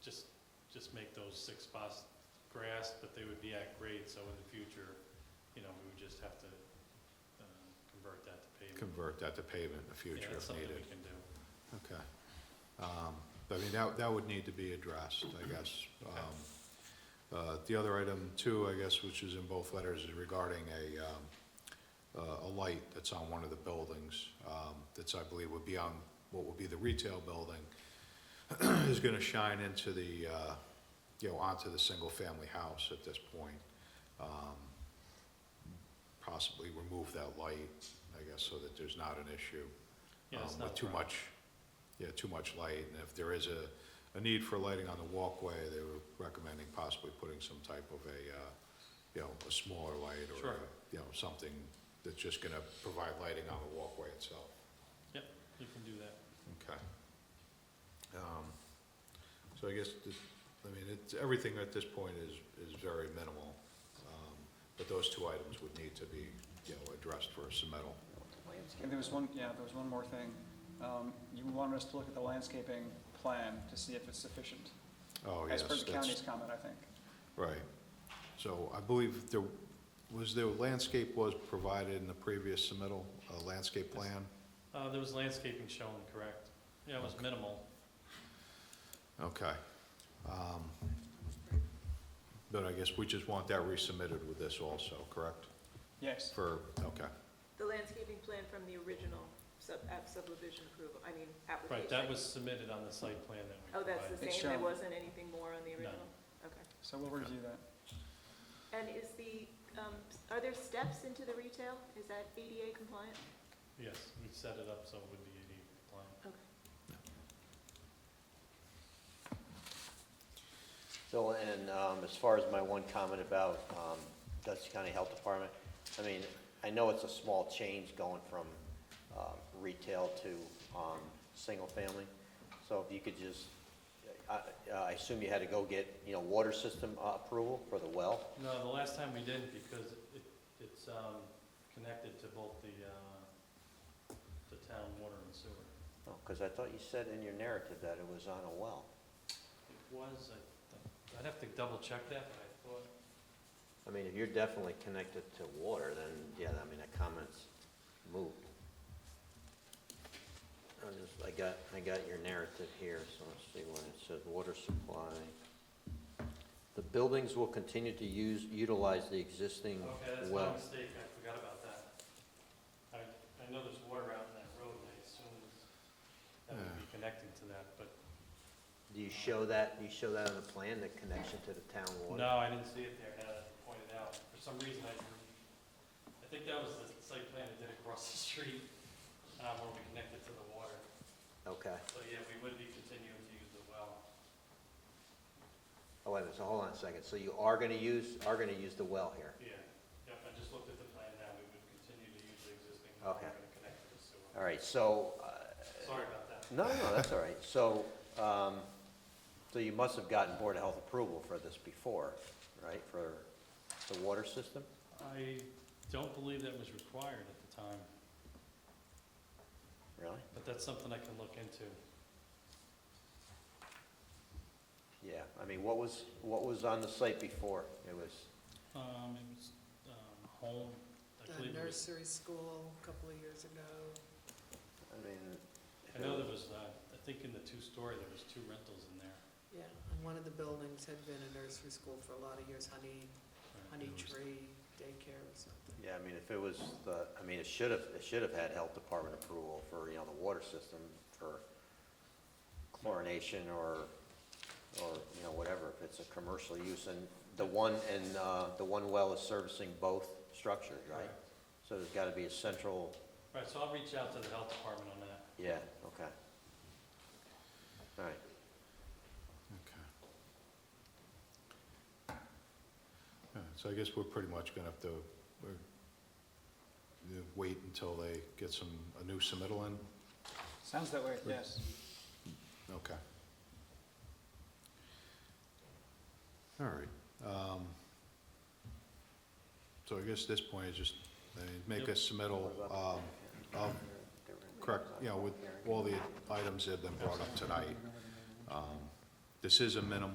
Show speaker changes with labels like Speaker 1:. Speaker 1: just make those six spots grass, but they would be at grade, so in the future, you know, we would just have to uh, convert that to pavement.
Speaker 2: convert that to pavement in the
Speaker 1: Yeah,
Speaker 2: future
Speaker 1: that's
Speaker 2: if
Speaker 1: something
Speaker 2: needed.
Speaker 1: we can do.
Speaker 2: Okay. Um, but I mean, that, that would need to be addressed, I guess. Um, uh, The other item too, I guess, which is in both letters, is regarding a, um, uh, a a light that's on one of the buildings, um, that's, I believe, would be on, what would be the retail building, is gonna shine into the, uh, you know, onto the single-family house at this point. Um, Possibly remove that light, I guess, so that there's not an issue.
Speaker 1: Yeah, it's
Speaker 2: um,
Speaker 1: not a
Speaker 2: With too
Speaker 1: problem.
Speaker 2: much, yeah, too much light, and if there is a, a need for lighting on the walkway, they were recommending possibly putting some type of a, uh, you know, a smaller light or,
Speaker 1: Sure.
Speaker 2: a- you know, something that's just gonna provide lighting on the walkway itself.
Speaker 1: Yep, you can do that.
Speaker 2: Okay. Um, So I guess, this- I mean, it's, everything at this point is, is very minimal, um, but those two items would need to be, you know, addressed for submittal.
Speaker 3: And there was one, yeah, there was one more thing. Um, You wanted us to look at the landscaping plan to see if it's sufficient.
Speaker 2: Oh, yes,
Speaker 3: As per the
Speaker 2: that's-
Speaker 3: county's comment, I think.
Speaker 2: Right. So I believe there, was there landscape was provided in the previous submittal, a landscape plan?
Speaker 1: Uh, There was landscaping shown, correct? Yeah, it was minimal.
Speaker 2: Okay. Um, But I guess we just want that resubmitted with this also, correct?
Speaker 3: Yes,
Speaker 2: For, okay,
Speaker 4: The landscaping plan from the original sub, app subdivision approval, I mean, application.
Speaker 1: Right, that was submitted on the site plan that we
Speaker 4: Oh, that's the
Speaker 1: provided.
Speaker 3: It's
Speaker 4: same, there
Speaker 3: shown.
Speaker 4: wasn't anything more on the
Speaker 1: No.
Speaker 4: original? Okay.
Speaker 3: so we'll review that.
Speaker 4: And is the, um, are there steps into the retail? Is that ADA compliant?
Speaker 1: Yes, we set it up so it would be ADA compliant.
Speaker 5: So, and um, as far as my one comment about um, Dutchess County Health Department, I mean, I know it's a small change going from um, retail to um, single-family. So if you could just, I uh, I assume you had to go get, you know, water system uh, approval for the well?
Speaker 1: No, the last time we didn't because it, it's um, connected to both the, uh, the town water and sewer.
Speaker 5: Because Oh, I thought you said in your narrative that it was on a well.
Speaker 1: It was, I think- I'd have to double check that, but I thought,
Speaker 5: I mean, if you're definitely connected to water, then, yeah, I mean, the comment's moot. I just, I got, I got your narrative here, so let's see what it says, water supply. The buildings will continue to use, utilize the existing
Speaker 1: okay, that's my
Speaker 5: well.
Speaker 1: mistake, I forgot about that. I, I know there's water out in that road and I assume that would be connecting to that, but
Speaker 5: Do you show that, do you show that on the plan, the connection to the town water?
Speaker 1: No, I didn't see it there, now that you pointed out. For some reason, I drew, I think that was the site plan that did across the street, uh, where we connected to the water.
Speaker 5: Okay,
Speaker 1: So, yeah, we would be continuing to use the well.
Speaker 5: oh, wait a minute, so hold on a second, so you are gonna use, are gonna use the well here?
Speaker 1: Yeah, yep, I just looked at the plan now, we would continue to use the existing
Speaker 5: well, we're Okay.
Speaker 1: to connect to the sewer.
Speaker 5: All right, so, uh,
Speaker 1: Sorry about that.
Speaker 5: No, no, that's all right. So, um, so you must have gotten Board of Health approval for this before, right, for the water system?
Speaker 1: I don't believe that was required at the time,
Speaker 5: Really?
Speaker 1: but that's something I can look into.
Speaker 5: Yeah, I mean, what was, what was on the site before? It was,
Speaker 1: Um, it was, um, home, I
Speaker 6: The
Speaker 1: believe, it was-
Speaker 6: nursery school a couple of years ago.
Speaker 5: I mean.
Speaker 1: I know there was, uh, I think in the two-story, there was two rentals in there.
Speaker 6: Yeah, and one of the buildings had been a nursery school for a lot of years, Honey,
Speaker 1: Right,
Speaker 6: Honey
Speaker 1: there was-
Speaker 6: Tree Daycare or something.
Speaker 5: Yeah, I mean, if it was the, I mean, it should have, it should have had Health Department approval for, you know, the water system for chlorination or, or, you know, whatever, if it's a commercial use. And the one, and, uh, the one well is servicing both structures, right?
Speaker 1: Correct.
Speaker 5: So there's gotta be a central,
Speaker 1: Right, so I'll reach out to the health department on that.
Speaker 5: yeah, okay. All right,
Speaker 2: okay. Yeah, So I guess we're pretty much gonna have to, we're, you wait until they get some, a new submittal in?
Speaker 3: Sounds that way, yes.
Speaker 2: Okay. All right. um, So I guess at this point, it's just, they make a
Speaker 1: Yep.
Speaker 2: submittal, um, of correct, you know, with all the items that have been brought up tonight. Um, This is a minimum